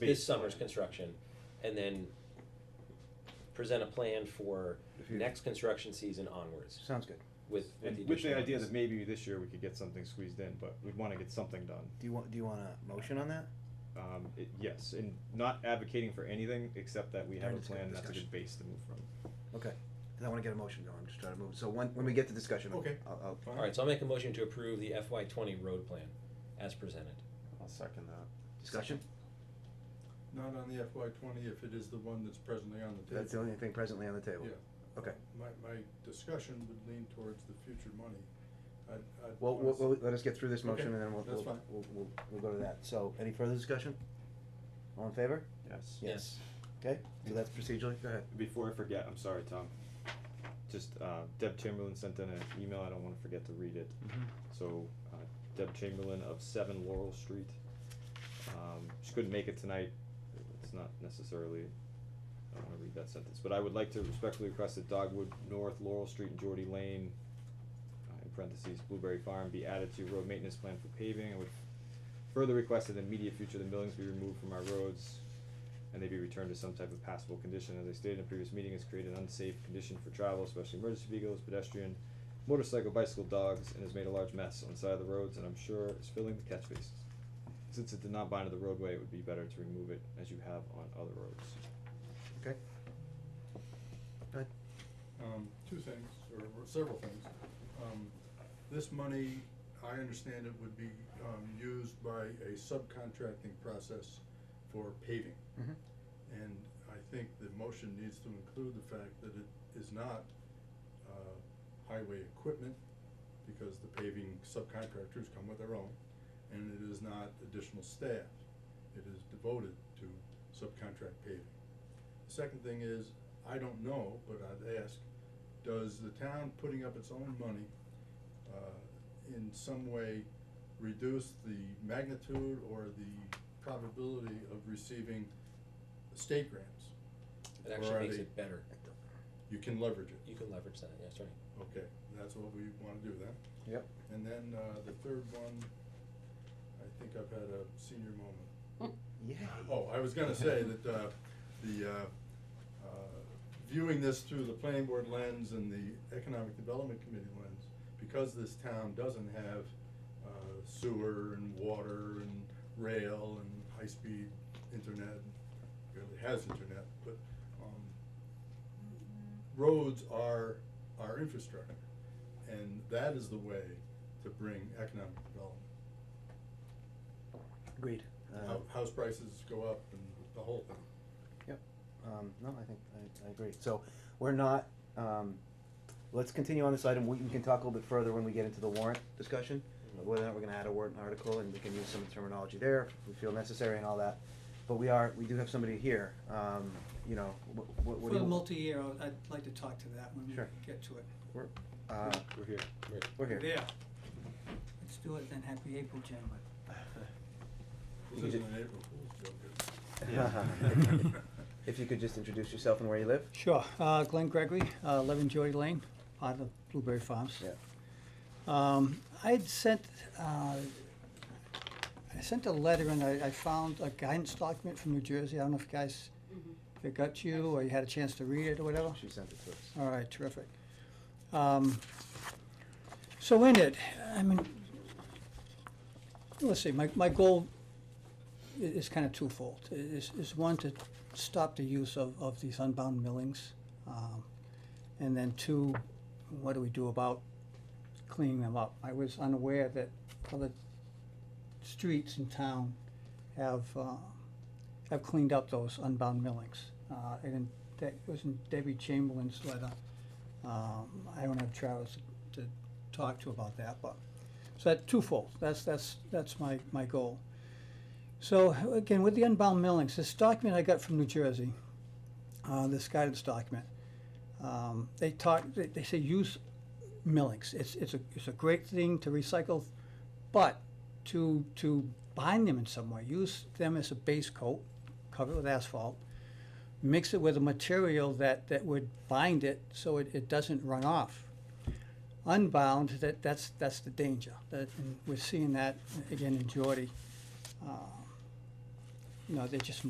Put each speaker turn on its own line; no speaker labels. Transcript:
this summer's construction, and then present a plan for
If you-
next construction season onwards
Sounds good.
with, with the
And with the
additional
idea that
ones.
maybe this year we could get something squeezed in, but we'd wanna get something done.
Do you want, do you want a motion on that?
Um, it, yes, and not advocating for anything, except that we have
During
a
this
plan, that's a
discussion.
good base to move from.
Okay, 'Cause I wanna get a motion going, I'm just trying to move, so when, when we get to discussion, I'll,
Okay.
I'll,
All right, so I'll make a motion to approve the FY twenty road plan as presented.
I'll second that.
discussion?
Not on the FY twenty, if it is the one that's presently on the
That's the
table.
only thing presently on the table?
Yeah.
Okay,
My, my discussion would lean towards the future money. I'd, I'd.
well,
wanna
we'll,
s-
we'll- let us get through this
Okay,
motion and then we'll,
that's
we'll,
fine.
we'll, we'll, we'll go to that, so, any further discussion? All in favor?
Yes.
Yes.
Okay, so that's procedurally, go ahead.
Before I forget, I'm sorry, Tom. Just, uh, Deb Chamberlain sent in an email, I don't wanna forget to read it. So, uh, Deb Chamberlain of Seven Laurel Street. Um, she couldn't make it tonight, it's not necessarily, I don't wanna read that sentence, but I would like to respectfully request that Dogwood North Laurel Street and Geordie Lane, uh, in parentheses, Blueberry Farm, be added to road maintenance plan for paving. I would further request that in the immediate future, the millings be removed from our roads and they be returned to some type of passable condition. As I stated in a previous meeting, it's created an unsafe condition for travel, especially emergency vehicles, pedestrian, motorcycle, bicycle, dogs, and has made a large mess on the side of the roads, and I'm sure is filling the catch bases. Since it did not bind to the roadway, it would be better to remove it as you have on other roads.
Okay. Go ahead.
um, two things, or or several things. Um, this money, I understand it would be, um, used by a subcontracting process for paving.
Mhm.
And I think the motion needs to include the fact that it is not, uh, highway equipment, because the paving subcontractors come with their own, and it is not additional staff. It is devoted to subcontract paving. The Second thing is, I don't know, but I'd ask, does the town putting up its own money, uh, in some way reduce the magnitude or the probability of receiving state grants?
It
Or
actually
are
makes
they-
it better.
You can leverage it.
You can leverage that, yes, right.
Okay, that's what we wanna do then.
Yep.
And then, uh, the third one, I think I've had a senior moment.
Yay.
Oh, I was gonna say that, uh, the, uh, uh, viewing this through the planning board lens and the economic development committee lens, because this town doesn't have, uh, sewer and water and rail and high-speed internet, barely has internet, but, um, roads are our infrastructure, and that is the way to bring economic development.
Agreed. Uh,
Hou- House prices go up and the whole thing.
Yep, um, no, I think, I, I agree, so, we're not, um, let's continue on this item, we, we can talk a little bit further when we get into the warrant discussion, of whether or not we're gonna add a warrant article, and we can use some terminology there, if we feel necessary and all that, but we are, we do have somebody here, um, you know, what, what, what
For
do
the
you?
multi-year, I'll- I'd like to talk to that when we
Sure.
get to it.
We're, uh,
We're here.
we're here.
Yeah. Let's do it then, happy April, gentlemen.
This
You
isn't
did-
an April Fool's joke. is
Yeah.
it?
If you could just introduce yourself and where you live?
Sure, uh, Glenn Gregory, uh, eleven Joy Lane, part of Blueberry Farms.
Yeah.
Um, I'd sent, uh, I sent a letter and I, I found a guidance document from New Jersey, I don't know if guys, if it got you, or you had a chance to read it or whatever?
She sent it to us.
All right, terrific. Um, So in it, I mean, let's see, my, my goal i- is kind of twofold. I- Is, is one, to stop the use of, of these unbound millings. um, And then two, what do we do about cleaning them up? I was unaware that other streets in town have, uh, have cleaned up those unbound millings. Uh, and in- that was in Debbie Chamberlain's letter. Um, I don't have Travis to talk to about that, but, so that twofold, that's, that's, that's my, my goal. So again, with the unbound millings, this document I got from New Jersey, uh, this guidance document, um, they talk, they, they say use millings. It's, it's a, it's a great thing to recycle, but to, to bind them in some way, use them as a base coat, cover it with asphalt, mix it with a material that, that would bind it so it, it doesn't run off. Unbound, that, that's, that's the danger. That, and we're seeing that again in Geordie. Uh, You know, they're just